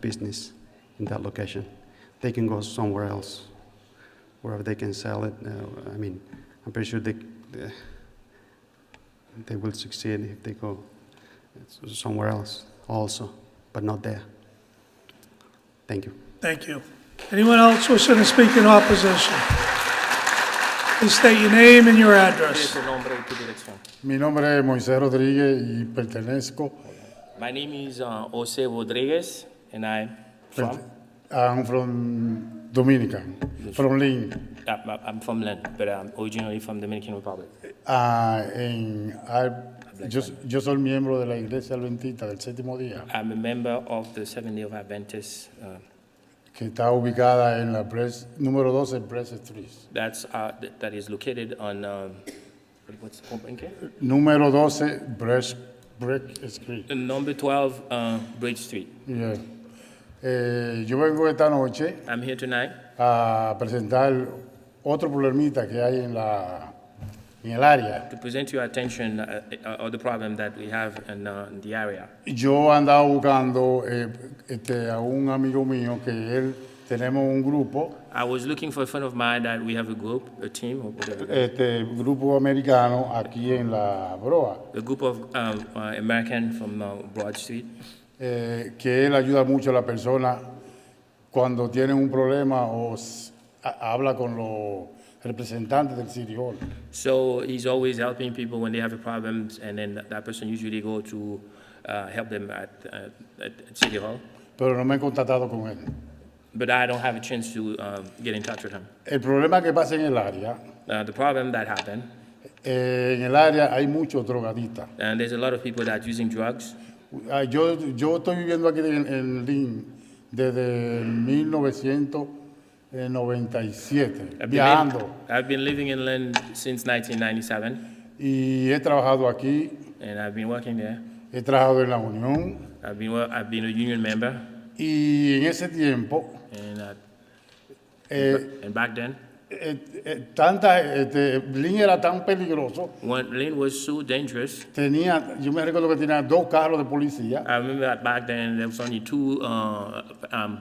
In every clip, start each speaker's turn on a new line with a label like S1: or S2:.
S1: business in that location. They can go somewhere else, wherever they can sell it. Uh, I mean, I'm pretty sure they, they- they will succeed if they go somewhere else also, but not there. Thank you.
S2: Thank you. Anyone else wishing to speak in opposition? Please state your name and your address.
S3: su nombre y tu dirección.
S4: Mi nombre es Moisés Rodríguez y pertenezco
S3: My name is uh, Jose Rodriguez and I'm from,
S4: I'm from Dominican, from Lynn,
S3: uh, uh, I'm from Len, but I'm originally from Dominican Republic.
S4: Ah, en, ah, yo, yo soy miembro de la Iglesia Adventista del Séptimo Día,
S3: I'm a member of the Seventh Day of Adventists. Uh,
S4: que está ubicada en la Pres- número 12 Press Street.
S3: that's uh, th- that is located on um, what's the company again?
S4: Número 12 Press, Break Street.
S3: Uh, number 12 uh, Bridge Street.
S4: Yeah. Eh, yo vengo esta noche
S3: I'm here tonight
S4: a presentar otro problemita que hay en, la, en el área.
S3: to present to your attention uh, uh, uh, the problem that we have in, uh, in the area.
S4: Yo andaba buscando eh, este, a un amigo mío que él, tenemos un grupo,
S3: I was looking for a friend of mine that we have a group, a team, or whatever,
S4: este grupo americano aquí en la Broa,
S3: a group of um, uh, American from uh, Broad Street.
S4: eh, que él ayuda mucho a la persona cuando tienen un problema o s- ha- habla con los representantes del City Hall.
S3: So he's always helping people when they have problems, and then that person usually go to uh, help them at, uh, at at City Hall.
S4: Pero no me he contactado con él.
S3: But I don't have a chance to um, get in touch with him.
S4: El problema que pasa en el área,
S3: Uh, the problem that happened,
S4: eh, en el área hay muchos drogadistas.
S3: and there's a lot of people that using drugs.
S4: Ah, Yo, yo estoy viviendo aquí en, en Lynn desde 1997,
S3: I've been-
S4: viajando.
S3: I've been living in Lynn since 1997,
S4: Y he trabajado aquí,
S3: and I've been working there.
S4: he trabajado en la Unión.
S3: I've been, wo- I've been a union member,
S4: Y en ese tiempo,
S3: and, uh,
S4: eh,
S3: and back then,
S4: eh, eh, tanta, este, Lynn era tan peligroso.
S3: when Lynn was so dangerous,
S4: Tenía, yo me recuerdo que tenía dos carros de policía
S3: I remember that back then there was only two uh, um,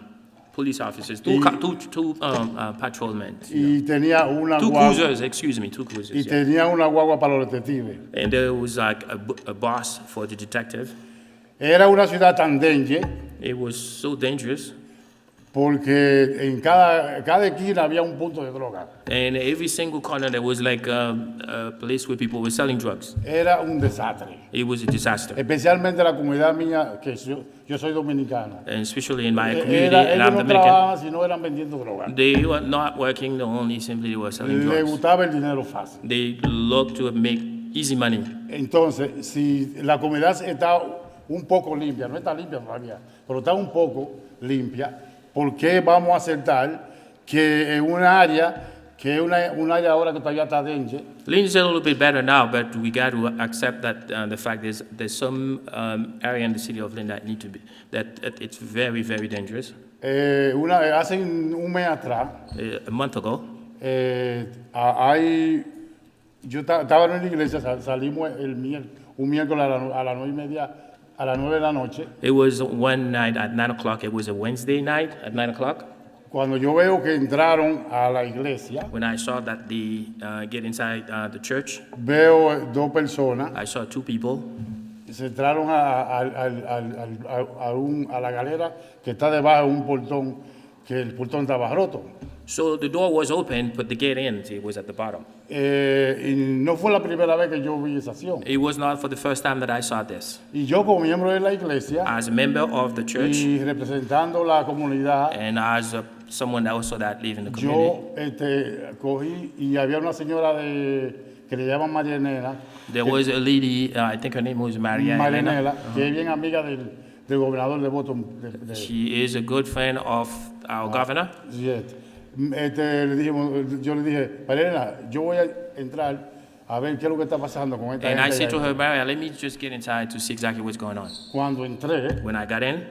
S3: police officers, two, ca- two, two um, uh, patrolmen,
S4: y tenía una
S3: two
S4: guagua,
S3: cruisers, excuse me, two
S4: y
S3: cruisers. yeah.
S4: tenía una guagua para los detectives.
S3: And there was like a, b- a boss for the detective.
S4: Era una ciudad tan dengue
S3: It was so dangerous.
S4: porque en cada, cada esquina había un punto de droga.
S3: And every single corner there was like um, a place where people were selling drugs.
S4: era un desastre.
S3: It was a disaster,
S4: Especialmente la comunidad mía, que yo, yo soy dominicano.
S3: and especially in my
S4: Eh,
S3: community,
S4: era-
S3: and
S4: ellos
S3: I'm
S4: no
S3: Dominican.
S4: trabajaban si no eran vendiendo drogas.
S3: They were not working, they only simply they were selling
S4: Le
S3: drugs.
S4: gustaba el dinero fácil.
S3: They looked to make easy money.
S4: Entonces, si la comunidad está un poco limpia, no está limpia todavía, pero está un poco limpia, ¿por qué vamos a aceptar que en un área, que es una, un área ahora que todavía está dengue,
S3: Lynn is a little bit better now, but we got to accept that uh, the fact is there's some um, area in the city of Lynn that need to be that, that it's very very dangerous.
S4: eh, una, hace un mes atrás,
S3: Uh, a month ago,
S4: Eh, a- hay, yo ta- estaba en la iglesia, sal- salimos el mier- un miércoles a la nu- a las nueve y media, a las nueve de la noche.
S3: it was one night at nine o'clock. It was a Wednesday night at nine o'clock
S4: Cuando yo veo que entraron a la iglesia,
S3: when I saw that they uh, get inside uh, the church.
S4: veo eh, dos personas,
S3: I saw two people.
S4: se entraron a, a- al- al- al- al- a- a un- a la galera que está debajo de un portón, que el portón estaba roto.
S3: So the door was open, but the gate in it was at the bottom.
S4: Eh, y no fue la primera vez que yo vi esa acción.
S3: It was not for the first time that I saw this.
S4: Y yo como miembro de la iglesia
S3: As a member of the church
S4: y representando la comunidad,
S3: and as uh, someone also that live in the community.
S4: Yo este, cogí y había una señora de, que le llaman Marianela,
S3: There was a lady, uh, I think her name was Maria. Elena.
S4: Marianela, que es bien amiga del, del gobernador de Boston. de- de-
S3: She is a good friend of our governor.
S4: sí, este. Mm, este, le dijimos- yo le dije, Marianela, yo voy a entrar a ver qué es lo que está pasando con esta
S3: And I said
S4: gente.
S3: to
S4: ahí".
S3: her, Maria, let me just get inside to see exactly what's going on.
S4: Cuando entré,
S3: When I got in,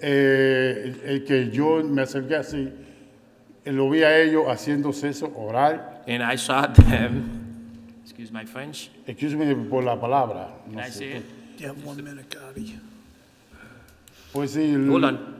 S4: eh, eh, que yo me acerqué así, eh, lo vi a ellos haciendo sexo oral,
S3: and I saw them, excuse my French,
S4: excuse me por la palabra. no
S3: and I
S4: sé.
S3: said,
S2: You have one minute, Gotti.
S4: Pues sí,
S3: hold on.